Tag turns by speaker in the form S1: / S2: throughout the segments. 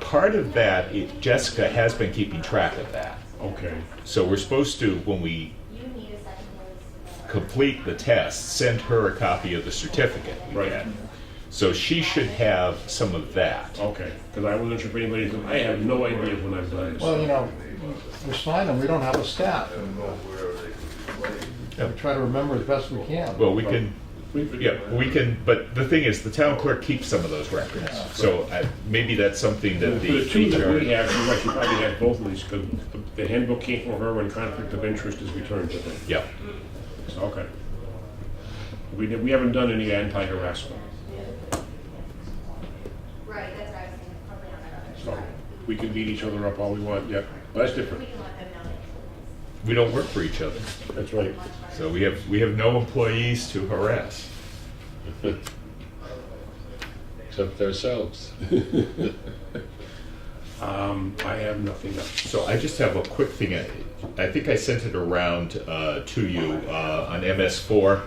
S1: part of that, it, Jessica has been keeping track of that.
S2: Okay,
S1: So we're supposed to, when we
S3: You need a second one.
S1: complete the test, send her a copy of the certificate. we
S2: Right.
S1: get. So she should have some of that.
S2: okay, because I wasn't sure if anybody, I have no idea when I've done
S4: Well,
S2: this.
S4: you know, we're signing, we don't have a staff. and We try to remember as best we can.
S1: Well, we can,
S2: We could-
S1: yeah, we can, but the thing is, the town clerk keeps some of those records. So I- maybe that's something
S2: For
S1: that
S2: the
S1: the
S2: two that we
S1: HR.
S2: have, you actually probably have both of these, because the handbook came from her when conflict of interest is returned to them.
S1: Yeah,
S2: So, Okay. We, did- we haven't done any anti-harassment,
S3: Right, that's what I was thinking, probably on that other
S2: so
S3: side.
S2: we can beat each other up all we want, yeah, Well, that's different,
S3: We can let them know that.
S1: we don't work for each other.
S2: that's right.
S1: So we have, we have no employees to harass.
S5: except ourselves.
S2: Um, I have nothing else.
S1: So I just have a quick thing. I, I think I sent it around uh, to you uh, on MS4.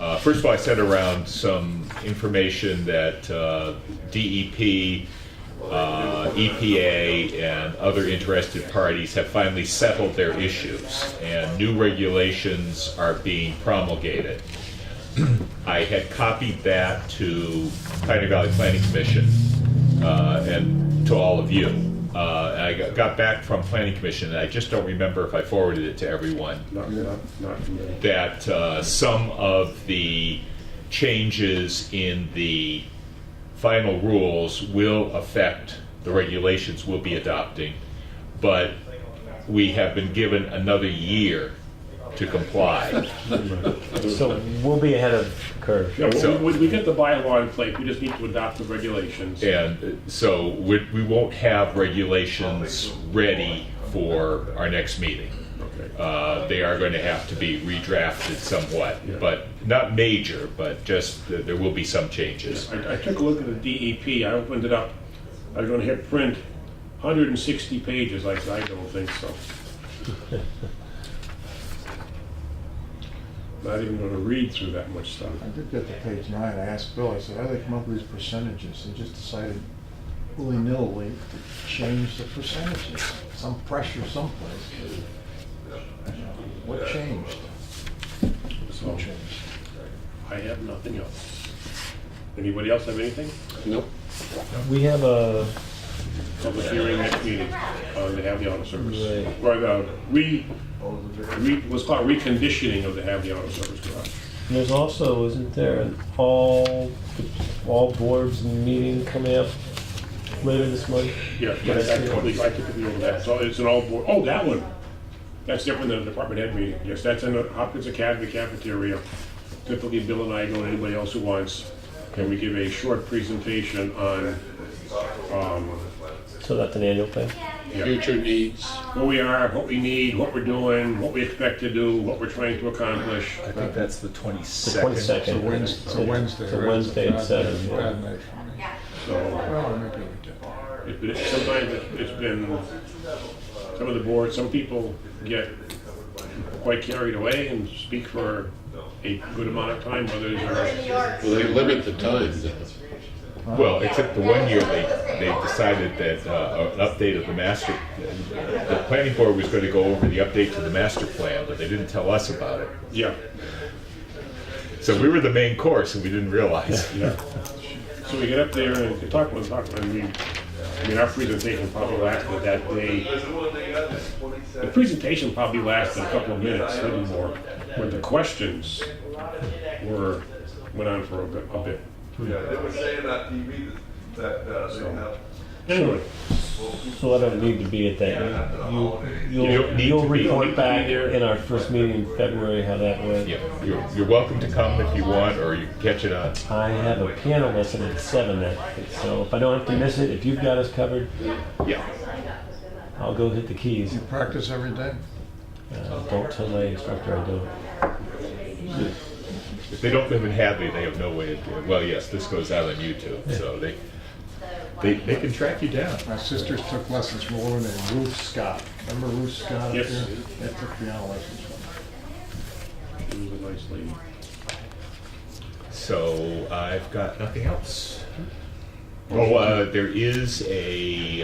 S1: Uh, first of all, I sent around some information that uh, DEP, uh, EPA, and other interested parties have finally settled their issues, and new regulations are being promulgated. I had copied that to Pioneer Valley Planning Commission uh, and to all of you. Uh, and I got- got back from Planning Commission, and I just don't remember if I forwarded it to everyone,
S2: Not, not, not from there.
S1: that uh, some of the changes in the final rules will affect the regulations we'll be adopting, but we have been given another year to comply.
S6: So we'll be ahead of curve.
S2: Yeah,
S1: So-
S2: well, we, we get the bylaw in place, we just need to adopt the regulations.
S1: And uh, so we, we won't have regulations ready for our next meeting.
S2: Okay.
S1: Uh, they are going to have to be redrafted somewhat,
S2: Yeah.
S1: but not major, but just th- there will be some changes.
S2: I, I took a look at the DEP, I opened it up, I was gonna hit print, hundred and sixty pages, I said, I don't think so. Not even gonna read through that much stuff.
S4: I did get to page nine, I asked Bill, I said, how do they come up with these percentages? They just decided willy-nilly to change the percentages, some pressure someplace. What changed?
S2: So
S4: What changed?
S2: I have nothing else. Anybody else have anything?
S5: Nope.
S6: We have a,
S2: Public hearing next meeting, uh, they have the auto service.
S6: Right.
S2: Right, uh, re, re, what's called reconditioning of the have the auto service garage.
S6: there's also, isn't there, an all, all boards meeting coming up later this month?
S2: Yeah, that's totally, I typically over that, so it's an all board, oh, that one, that's different than a department head meeting, yes, that's in the Hopkins Academy cafeteria. Typically, Bill and I go, and anybody else who wants, and we give a short presentation on, um,
S6: So that's an annual thing?
S5: Future needs.
S2: where we are, what we need, what we're doing, what we expect to do, what we're trying to accomplish.
S1: I think that's the
S6: The twenty-second.
S7: It's a Wednesday.
S6: It's a
S7: right?
S6: Wednesday at seven.
S7: Bad night for me.
S3: Yeah.
S2: So,
S4: Well, I might be able to get
S2: it- but it's- sometimes it- it's been, uh, some of the boards, some people get quite carried away and speak for a good amount of time, others are
S5: Well, they limit the time. though.
S1: Well, except the one year they, they decided that uh, an update of the master, the planning board was going to go over the update to the master plan, but they didn't tell us about it.
S2: Yeah,
S1: So we were the main course and we didn't realize.
S2: yeah. So we get up there and we talk about, talk about, and we, I mean, our presentation probably lasted that day. The presentation probably lasted a couple of minutes, a little more, but the questions were, went on for a bit, a bit.
S8: Yeah, they were saying that TV, that, uh, they have.
S2: Anyway,
S6: So I don't need to be at that. You-
S1: You don't
S6: You'll,
S1: need
S6: you'll
S1: to be.
S6: report back in our first meeting in February how that went.
S1: Yeah, you're, you're welcome to come if you want, or you can catch it on.
S6: I have a piano lesson at seven that, so if I don't have to miss it, if you've got us covered,
S1: Yeah.
S6: I'll go hit the keys.
S4: You practice every day?
S6: Uh, Don't tell my instructor I don't.
S1: If they don't live in Hadley, they have no way to do it. Well, yes, this goes out on YouTube, so they, they, they can track you down.
S4: My sisters took lessons from a woman named Ruth Scott. Remember Ruth Scott? up
S2: Yes.
S4: there? They took piano lessons from her.
S2: it was a nice lady.
S1: So I've got nothing else. Oh, uh, there is a